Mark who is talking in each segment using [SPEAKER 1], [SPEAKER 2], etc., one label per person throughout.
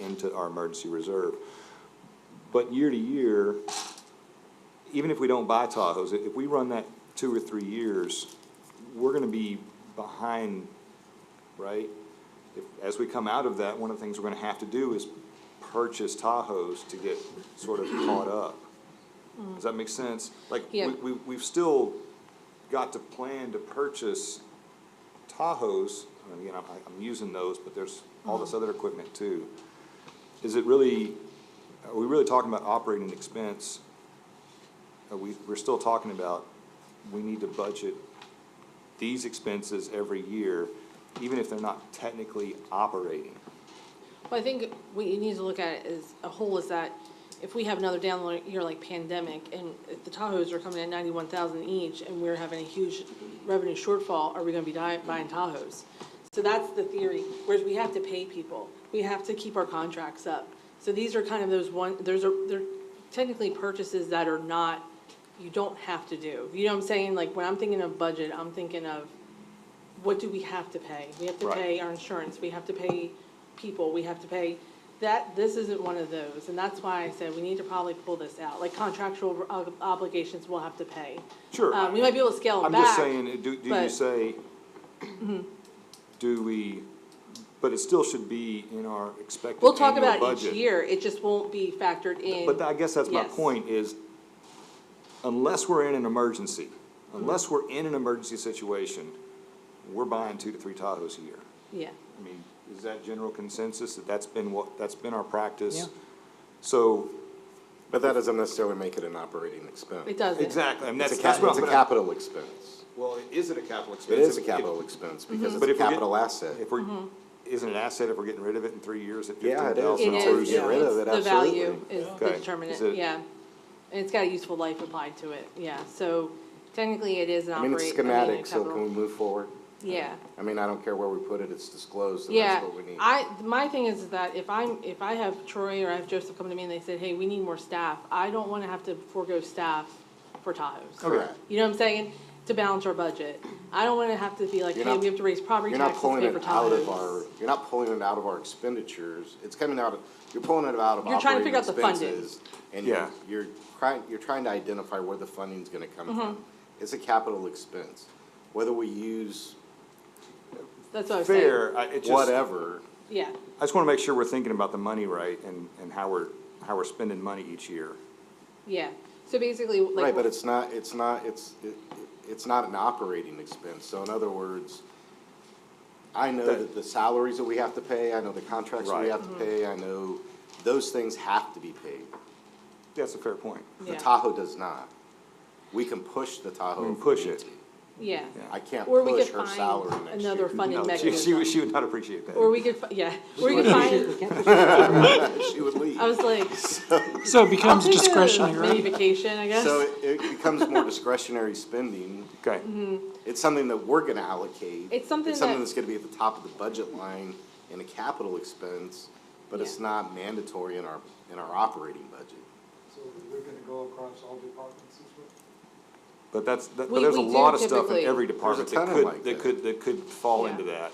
[SPEAKER 1] into our emergency reserve. But year to year, even if we don't buy Tahoes, i- if we run that two or three years, we're gonna be behind, right? If- As we come out of that, one of the things we're gonna have to do is purchase Tahoes to get sort of caught up. Does that make sense? Like, we,
[SPEAKER 2] Yeah.
[SPEAKER 1] we, we've still got to plan to purchase Tahoes, and again, I'm, I'm using those, but there's all this other equipment too. Is it really, are we really talking about operating expense? Are we, we're still talking about, we need to budget these expenses every year, even if they're not technically operating.
[SPEAKER 2] Well, I think what you need to look at as a whole is that if we have another down li- year like pandemic and if the Tahoes are coming at ninety-one thousand each and we're having a huge revenue shortfall, are we gonna be di- buying Tahoes? So that's the theory, whereas we have to pay people, we have to keep our contracts up. So these are kind of those one, those are, they're technically purchases that are not, you don't have to do. You know what I'm saying? Like, when I'm thinking of budget, I'm thinking of what do we have to pay? We have to
[SPEAKER 1] Right.
[SPEAKER 2] pay our insurance, we have to pay people, we have to pay, that, this isn't one of those, and that's why I said we need to probably pull this out, like contractual ob- obligations we'll have to pay.
[SPEAKER 1] Sure.
[SPEAKER 2] Uh, we might be able to scale them
[SPEAKER 1] I'm
[SPEAKER 2] back.
[SPEAKER 1] just saying, do, do you
[SPEAKER 2] but- Mm-hmm.
[SPEAKER 1] say, do we, but it still should be in our expected
[SPEAKER 2] We'll talk
[SPEAKER 1] annual
[SPEAKER 2] about it each
[SPEAKER 1] budget.
[SPEAKER 2] year, it just won't be factored in.
[SPEAKER 1] But I guess that's my
[SPEAKER 2] Yes.
[SPEAKER 1] point is, unless we're in an emergency, unless we're in an emergency situation, we're buying two to three Tahoes a year.
[SPEAKER 2] Yeah,
[SPEAKER 1] I mean, is that general consensus, that that's been what, that's been our practice?
[SPEAKER 3] Yeah.
[SPEAKER 1] So,
[SPEAKER 4] But that doesn't necessarily make it an operating expense.
[SPEAKER 2] it doesn't.
[SPEAKER 1] exactly, and
[SPEAKER 4] It's
[SPEAKER 1] that's,
[SPEAKER 4] a
[SPEAKER 1] that's
[SPEAKER 4] cap,
[SPEAKER 1] what
[SPEAKER 4] it's a
[SPEAKER 1] I'm-
[SPEAKER 4] capital expense.
[SPEAKER 1] Well, is it a capital expense?
[SPEAKER 4] It is
[SPEAKER 1] If-
[SPEAKER 4] a
[SPEAKER 1] if-
[SPEAKER 4] capital Mm-hmm. expense because
[SPEAKER 1] But
[SPEAKER 4] it's a
[SPEAKER 1] if we get-
[SPEAKER 4] capital asset.
[SPEAKER 1] If we're,
[SPEAKER 2] Mm-hmm.
[SPEAKER 1] isn't it an asset if we're getting rid of it in three years at
[SPEAKER 4] Yeah,
[SPEAKER 1] fifteen
[SPEAKER 4] it is.
[SPEAKER 1] thousand?
[SPEAKER 2] It
[SPEAKER 4] Until we
[SPEAKER 2] is,
[SPEAKER 4] get rid of it,
[SPEAKER 2] it's the value
[SPEAKER 4] absolutely.
[SPEAKER 2] is the
[SPEAKER 1] Okay. Is it-
[SPEAKER 2] determinant, yeah. And it's got a useful life applied to it, yeah, so technically it is an
[SPEAKER 4] I mean,
[SPEAKER 2] operating.
[SPEAKER 4] it's
[SPEAKER 2] I mean, a
[SPEAKER 4] schematic, so can
[SPEAKER 2] capital-
[SPEAKER 4] we move forward?
[SPEAKER 2] Yeah.
[SPEAKER 4] I mean, I don't care where we put it, it's disclosed and
[SPEAKER 2] Yeah,
[SPEAKER 4] that's what we need.
[SPEAKER 2] I, my thing is that if I'm, if I have Troy or I have Joseph come to me and they said, hey, we need more staff, I don't wanna have to forego staff for Tahoes.
[SPEAKER 4] Correct.
[SPEAKER 2] You know what I'm saying? To balance our budget. I don't wanna have to be like,
[SPEAKER 4] You're
[SPEAKER 2] hey,
[SPEAKER 4] not-
[SPEAKER 2] we have to raise property
[SPEAKER 4] You're not
[SPEAKER 2] taxes to
[SPEAKER 4] pulling
[SPEAKER 2] pay for
[SPEAKER 4] it out of
[SPEAKER 2] Tahoes.
[SPEAKER 4] our, you're not pulling it out of our expenditures. It's coming out of, you're pulling it out of
[SPEAKER 2] You're trying to
[SPEAKER 4] operating
[SPEAKER 2] figure out the funding.
[SPEAKER 4] expenses. And
[SPEAKER 1] Yeah.
[SPEAKER 4] you're, you're trying, you're trying to identify where the funding's gonna come
[SPEAKER 2] Mm-hmm.
[SPEAKER 4] from. It's a capital expense. Whether we use
[SPEAKER 2] That's what I was saying.
[SPEAKER 1] Fair, I, it just.
[SPEAKER 4] whatever,
[SPEAKER 2] Yeah,
[SPEAKER 1] I just wanna make sure we're thinking about the money right and, and how we're, how we're spending money each year.
[SPEAKER 2] yeah. So basically, like.
[SPEAKER 4] Right, but it's not, it's not, it's, it- it- it's not an operating expense, so in other words, I know
[SPEAKER 1] That-
[SPEAKER 4] that the salaries that we have to pay, I know the contracts that we
[SPEAKER 1] Right.
[SPEAKER 4] have to pay, I know those things have to be paid.
[SPEAKER 1] That's a fair point.
[SPEAKER 4] The
[SPEAKER 2] Yeah.
[SPEAKER 4] Tahoe does not. We can push the Tahoe.
[SPEAKER 1] We
[SPEAKER 4] if
[SPEAKER 1] push
[SPEAKER 4] need
[SPEAKER 1] it.
[SPEAKER 4] to.
[SPEAKER 2] Yeah.
[SPEAKER 4] I can't
[SPEAKER 2] Or we
[SPEAKER 4] push
[SPEAKER 2] could
[SPEAKER 4] her
[SPEAKER 2] find
[SPEAKER 4] salary next year.
[SPEAKER 2] another funding
[SPEAKER 1] No, she, she, would-
[SPEAKER 2] mechanism.
[SPEAKER 1] she would not appreciate
[SPEAKER 2] Or
[SPEAKER 1] that.
[SPEAKER 2] we could, fi- yeah, or we could find,
[SPEAKER 4] She would leave.
[SPEAKER 2] I was like,
[SPEAKER 3] So it
[SPEAKER 2] I'll
[SPEAKER 3] becomes
[SPEAKER 2] take a
[SPEAKER 3] discretionary,
[SPEAKER 2] mini
[SPEAKER 3] right?
[SPEAKER 2] vacation, I guess.
[SPEAKER 4] So it- it becomes more discretionary spending.
[SPEAKER 1] Okay,
[SPEAKER 2] Mm-hmm.
[SPEAKER 4] It's something that we're gonna allocate.
[SPEAKER 2] It's something that-
[SPEAKER 4] that's gonna be at the top of the budget line in a capital expense, but it's
[SPEAKER 2] Yeah.
[SPEAKER 4] not mandatory in our, in our operating budget.
[SPEAKER 5] So we're gonna go across all departments this way?
[SPEAKER 1] but that's, that- but
[SPEAKER 2] We-
[SPEAKER 1] there's a
[SPEAKER 2] we do
[SPEAKER 1] lot of stuff in
[SPEAKER 2] typically-
[SPEAKER 1] every department that
[SPEAKER 4] ton of
[SPEAKER 1] could, that
[SPEAKER 4] like that.
[SPEAKER 1] could, that could fall
[SPEAKER 2] Yeah.
[SPEAKER 1] into that.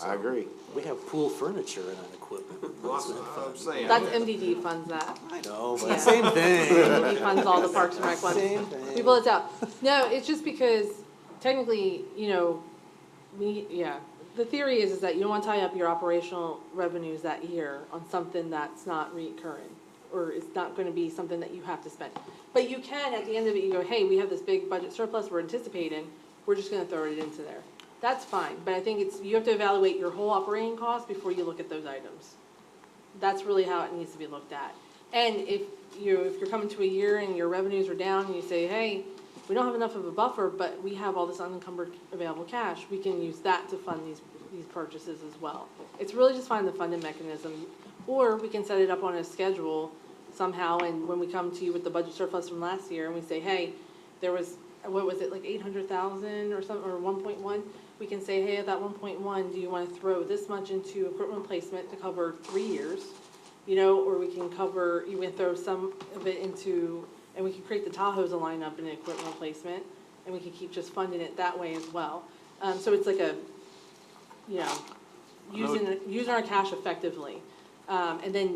[SPEAKER 4] I agree.
[SPEAKER 3] We have pool furniture in our equipment.
[SPEAKER 1] I'm saying.
[SPEAKER 2] That's MDD funds that.
[SPEAKER 3] I know,
[SPEAKER 2] Yeah.
[SPEAKER 3] but same thing.
[SPEAKER 2] He funds all the Parks and Rec ones.
[SPEAKER 3] Same thing.
[SPEAKER 2] We blow it out. No, it's just because technically, you know, we, yeah. The theory is, is that you don't wanna tie up your operational revenues that year on something that's not recurring. Or it's not gonna be something that you have to spend. But you can, at the end of it, you go, hey, we have this big budget surplus we're anticipating, we're just gonna throw it into there. That's fine, but I think it's, you have to evaluate your whole operating cost before you look at those items that's really how it needs to be looked at. And if you, if you're coming to a year and your revenues are down, and you say, hey, we don't have enough of a buffer, but we have all this unencumbered available cash, we can use that to fund these, these purchases as well. It's really just find the funding mechanism, or we can set it up on a schedule somehow, and when we come to you with the budget surplus from last year, and we say, hey, there was, what was it, like eight hundred thousand or something, or one point one? We can say, hey, of that one point one, do you wanna throw this much into equipment placement to cover three years? You know, or we can cover, you can throw some of it into, and we can create the Tahoes a lineup in equipment replacement, and we can keep just funding it that way as well. Um, so it's like a, you know, using, using our cash effectively. Um, and then